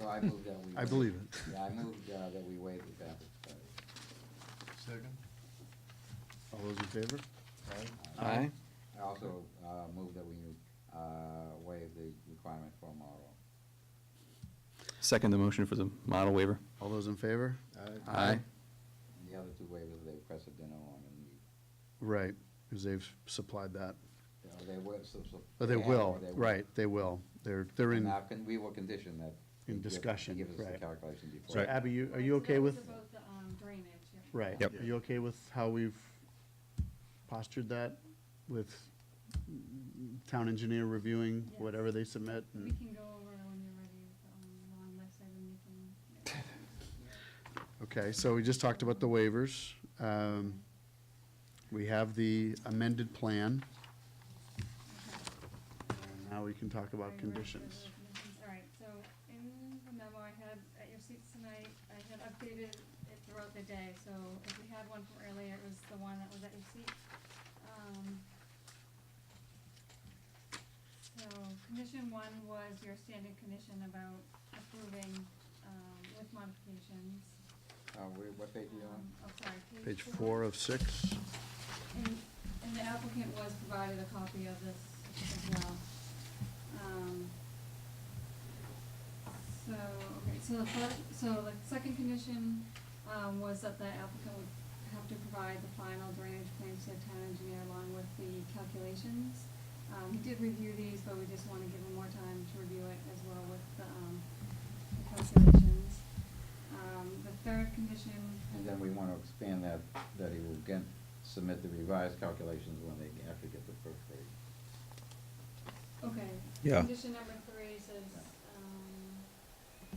So I moved that we. I believe it. Yeah, I moved uh, that we waive the traffic study. Second? All those in favor? Aye. Aye. I also uh, moved that we uh, waive the requirement for a model. Second the motion for the model waiver. All those in favor? Aye. And the other two waivers, they requested dinner on, and Right, because they've supplied that. you know, they will. so- so- But they have or will, they right, they will. They're, they're And in, now, can- we were conditioned that. In they give- they discussion, Give us the right. calculation so before. Abby, you, are Right, you so okay that was with, About the um, drainage, yeah. right? Yep. Are you okay with how we've postured that with town engineer reviewing Yes. whatever they submit? We and- can go over it when you're ready with the um, long list, and you can. Okay, so we just talked about the waivers. Um, We have the amended plan. And Now we can talk Are you ready about for conditions. the conditions? All right, so in the memo I had at your seats tonight, I had updated it throughout the day, so if we had one from earlier, it was the one that was at your seat. Um, So, condition one was your standard condition about approving, um, with modifications. Uh, we- What page are you on? Um, Oh, sorry, Page four of six. And, and the applicant was provided a copy of this as well. Um, So, okay, so the first, so the second condition, um, was that the applicant would have to provide the final drainage plans to the town engineer along with the calculations. Um, he did review these, but we just wanna give him more time to review it as well with the, um, the calculations. Um, the third condition. And then we want to expand that, that he will again submit the revised calculations when they actually get the first page. Okay. Yeah. Condition number three says, um.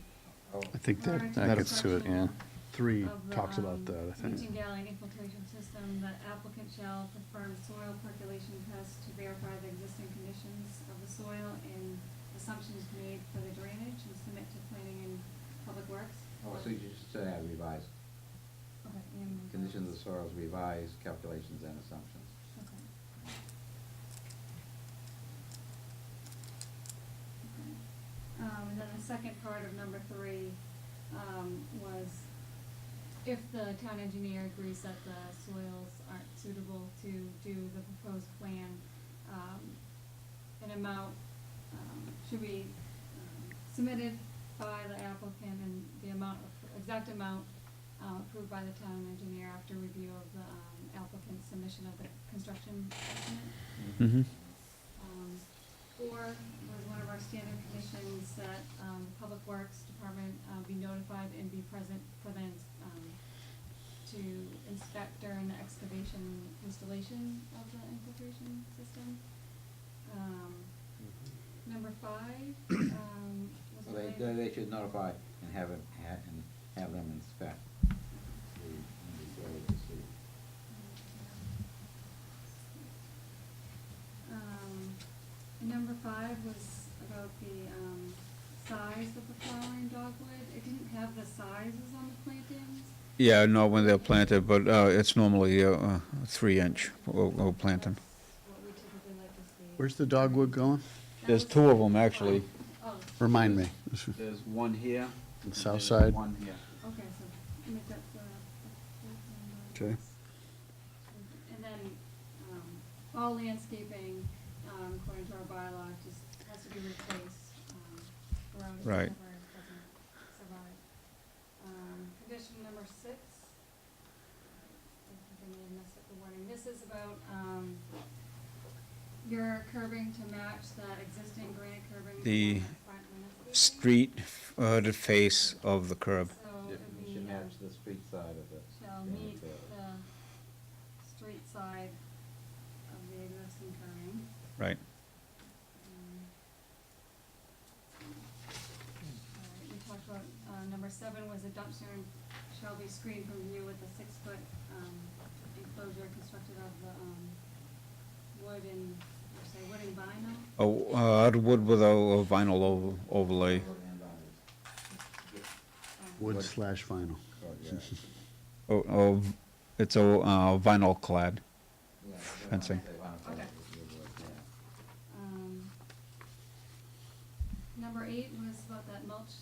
Oh, I think prior that, to That that gets to it, construction yeah. three of the, talks about um, that, I Leaching think. gallery infiltration system, the applicant shall perform soil percolation tests to verify the existing conditions of the soil and assumptions made for the drainage and submit to planning and public works. oh, so you just said that revised, Okay, and. conditions of soils revised, calculations and assumptions. Okay. Okay. Um, and then the second part of number three, um, was if the town engineer agrees that the soils aren't suitable to do the proposed plan, um, an amount, um, should be um, submitted by the applicant and the amount, of- exact amount, uh, approved by the town engineer after review of the, um, applicant's submission of the construction estimate. Mm-hmm. Um, Four was one of our standard conditions that, um, Public Works Department, uh, be notified and be present for the, um, to inspect during the excavation installation of the infiltration system. Um, number five, um, was So they, they related. they should notify and have it, ha- and have them inspect the, the area to see. Um, and number five was about the, um, size of the flowering dogwood. It didn't have the sizes on the plantings. Yeah, no, when they're planted, but uh, it's normally uh, uh, three inch, we'll, we'll plant them. That's What we typically like to see. Where's the dogwood going? That There's was- two of them, actually. Oh, Remind me. There's one here. South side. One here. okay, so make that the. Okay. And then, um, all landscaping, um, according to our bylaw, just has to be replaced, um, around if it Right. ever doesn't survive. Um, condition number six. I think I may have messed up the wording. This is about, um, your curbing to match that existing granite curbing. The on front landscaping. Street, uh, the face of the curb. So it would It be, should uh, match the street side of it. shall meet the street side of the existing curbing. Right. Um, all right, We talked about, uh, number seven was a dumpster shall be screened from view with a six-foot, um, enclosure constructed of the, um, wood and, or say, wood and vinyl. Oh, uh, the wood with a a vinyl ov- overlay. Um, Wood slash vinyl. Oh, yeah. Oh, oh, v- it's a uh, vinyl Yeah, clad. they want- Fencing. they want to- Okay. yeah. Um, number eight was about that mulch